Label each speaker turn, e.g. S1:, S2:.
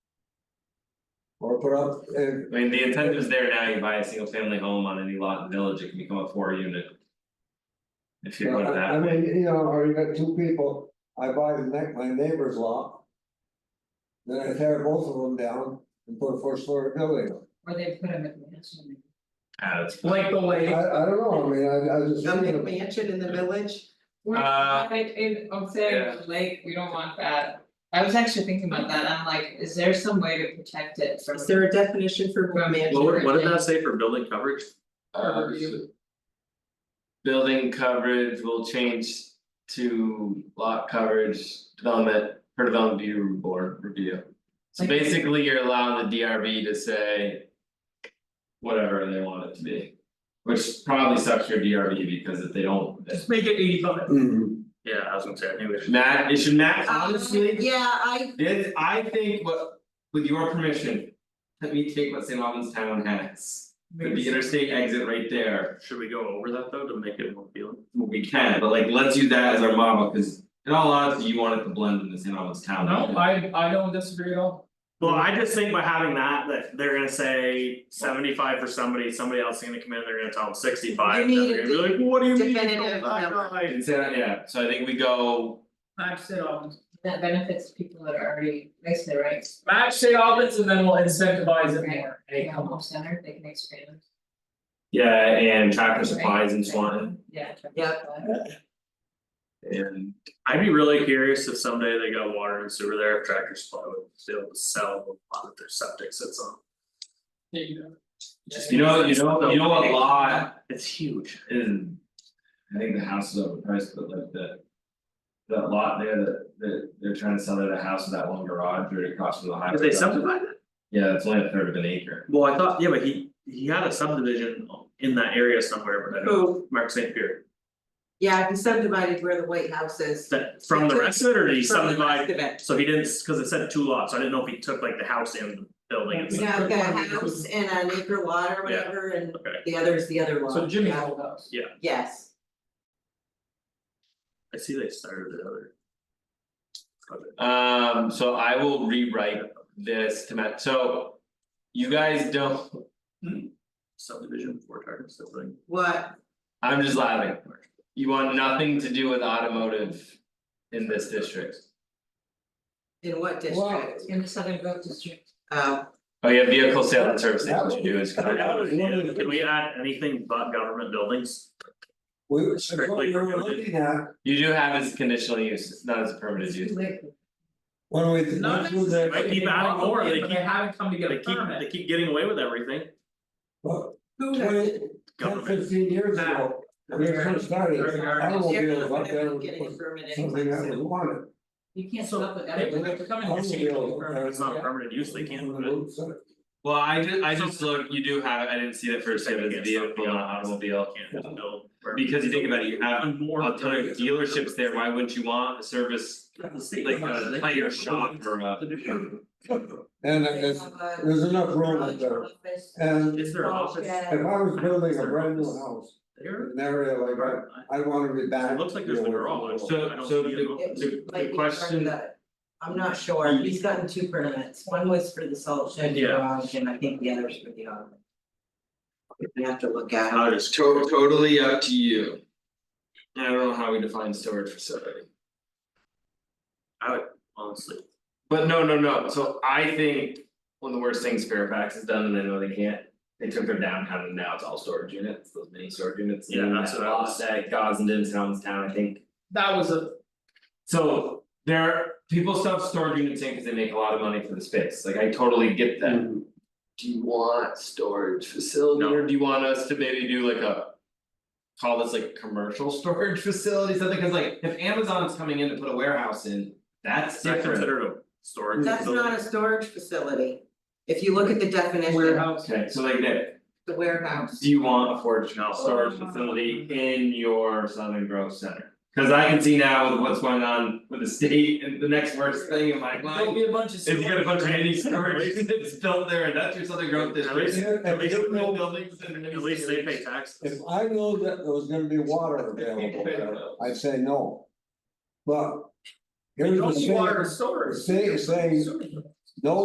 S1: Or put up, uh,
S2: I mean, the intent is there now, you buy a single family home on any lot in the village, it can become a four unit. If you put it
S1: I I
S2: that way,
S1: mean, you know, or you got two people, I buy the neck, my neighbor's lot. Then I tear both of them down and put a four story building. up.
S3: Or they put a McMansion.
S2: Ah, that's-
S4: like the
S1: I
S4: way,
S1: I don't know, I mean, I I was just.
S5: A
S1: thinking
S5: big
S1: about-
S5: mansion in the village,
S3: We're
S2: Uh,
S3: not in Ocean Lake, we don't want that. I was actually thinking about that, I'm like, is there some way to protect it from?
S5: is there a definition for a mansion?
S2: what would- what did that say for building coverage?
S3: Or review?
S2: Building coverage will change to lot coverage development per development review board review. So
S3: Like-
S2: basically, you're allowing the DRB to say. Whatever they want it to be, which probably sucks your DRB because if they don't,
S4: just make it eighty five.
S1: Mhm.
S4: Yeah, I was gonna say, I knew it.
S2: Matt, it should max,
S5: Um,
S2: honestly.
S5: yeah, I,
S2: This, I think what, with your permission, let me take what St. Albans Town has, with the interstate exit right there.
S4: Should we go over that though to make it more appealing?
S2: We can, but like, let's use that as our model, cause in all honesty, you want it to blend into St. Albans Town.
S4: I I don't disagree at all.
S6: Well, I just think by having that, that they're gonna say seventy five for somebody, somebody else is gonna come in, they're gonna tell them sixty five, and
S5: You
S6: then
S5: need a
S6: they're gonna be like, what do you mean?
S5: definitive number.
S2: It's, uh, yeah, so I think we go,
S4: Match St. Albans,
S3: That benefits people that are already, they say, right,
S4: match St. Albans and then we'll incentivize it more, hey,
S3: they
S4: come on.
S3: home center, they can expand.
S2: yeah, and tractor supplies and Swanton,
S3: Yeah.
S5: Yep.
S2: and
S6: I'd be really curious if someday they got water and sewer there, if Tractor Supply would be able to sell the lot that their septic sits on.
S4: There you go.
S2: you know, you know, you know what lot
S6: It's huge.
S2: is. I think the house is overpriced, but like the. That lot there that that they're trying to sell it a house with that one garage or across from the highway.
S6: Did they subdivide it?
S2: Yeah, it's only a third of an acre.
S6: Well, I thought, yeah, but he he had a subdivision in that area somewhere, but I don't,
S5: Who,
S6: Mark St. Pierre.
S5: yeah, he subdivided where the White House is.
S6: That from the rest of it, or did he
S5: From the
S6: subdivide?
S5: rest of it.
S6: So he didn't, cause it said two lots, so I didn't know if he took like the house and the building and stuff.
S5: Yeah, I've got a house and an acre lot or whatever, and
S6: Okay.
S5: the other is the other lot.
S4: So Jimmy's
S5: Yeah.
S4: old house.
S5: Yes,
S6: I see they started the other. project.
S2: Um, so I will rewrite this to match, so. You guys don't,
S6: Subdivision for target building.
S5: what,
S2: I'm just laughing. You want nothing to do with automotive in this district.
S5: in what
S1: Well,
S5: district?
S3: In the Southern Grove District.
S5: Oh,
S2: Oh, yeah, vehicle sale and service, that's what you do is.
S6: Can we add anything but government buildings?
S1: we, that's what
S6: Strictly
S1: we were
S6: prohibited.
S1: looking at,
S2: You do have as conditional use, it's not as a permitted use.
S1: when we.
S4: Not
S1: went through the-
S6: Might keep adding more, they
S4: But
S6: keep-
S4: haven't come to get
S6: They
S4: a
S6: keep, they
S4: permit,
S6: keep getting away with everything,
S1: Well,
S5: who does
S1: Twenty,
S5: it?
S1: ten,
S6: government,
S1: fifteen years
S4: Nah.
S1: ago, when it first started,
S4: Very hard.
S1: automobiles up
S5: They're
S1: there
S5: not
S1: was
S5: gonna get a permit
S1: something
S5: anytime
S1: that was
S5: soon.
S1: wanted.
S3: You can't stop with
S4: they
S3: that.
S4: they come in and change the
S1: Automobiles. uh,
S4: permit.
S6: it's not permanent use, they can't move it.
S2: Well, I just, I just look, you do have, I didn't see that first, it was vehicle and automobile.
S6: Can't just build. wherever.
S2: Because you think about it, you have
S6: And more
S2: a ton of dealerships there, why wouldn't you want a service, like uh, a tire shop or uh, a.
S1: And
S5: They
S1: it's,
S5: have a
S1: there's enough room
S5: garage
S1: up there,
S5: office,
S1: and
S6: Is there an office?
S5: Yeah.
S1: if I was building a brand new house,
S6: There?
S1: in an area like that, I wanna be back.
S6: It looks like there's
S1: you
S6: the
S1: know,
S6: garage.
S2: So-
S6: I don't
S2: so
S6: see it.
S2: the-
S5: It
S2: The-
S5: might
S2: the
S5: be
S2: question-
S5: part of the- I'm not sure, he's gotten two permits, one was for the salt shed
S6: Yeah.
S5: garage, and I think the other's for the auto. We have to look at it,
S6: I'll just-
S2: To- totally up to you. I don't know how we define storage facility.
S6: honestly,
S2: But no, no, no, so I think one of the worst things Fairfax has done, and I know they can't. They took their downtown and now it's all storage units, those mini storage units. and
S6: Yeah,
S2: then
S6: that's
S2: that
S6: what I
S2: lot
S6: was-
S2: That Gosden's Town, I think.
S4: That was a,
S2: So there, people stuff storage units in because they make a lot of money for the space, like I totally get that.
S6: Mm-hmm.
S1: Mhm.
S2: Do you want storage facility
S6: No.
S2: or do you want us to maybe do like a? Call this like commercial storage facility, something, cause like if Amazon's coming in to put a warehouse in, that's
S6: it's not
S2: different.
S6: considered a storage
S5: that's not a
S6: facility.
S5: storage facility. If you look at the definition,
S4: warehouse.
S2: Okay, so like that,
S5: the warehouse,
S2: do you want a forage
S6: No.
S2: storage facility in your Southern Grove Center? Cause I can see now with what's going on with the state and the next worst thing in my mind.
S4: There'll be a bunch of.
S2: If you got a bunch of mini storage
S6: storage
S2: units built there, and that's your Southern Growth
S6: At
S2: District.
S6: least-
S1: Yeah,
S6: at
S1: if
S6: least-
S1: you know-
S6: At least they pay
S1: If
S6: taxes.
S1: I know that there was gonna be water available there, I'd say no. But.
S4: You
S1: Here's
S4: don't
S1: the
S4: need water
S1: thing,
S4: storage.
S1: the state is saying, no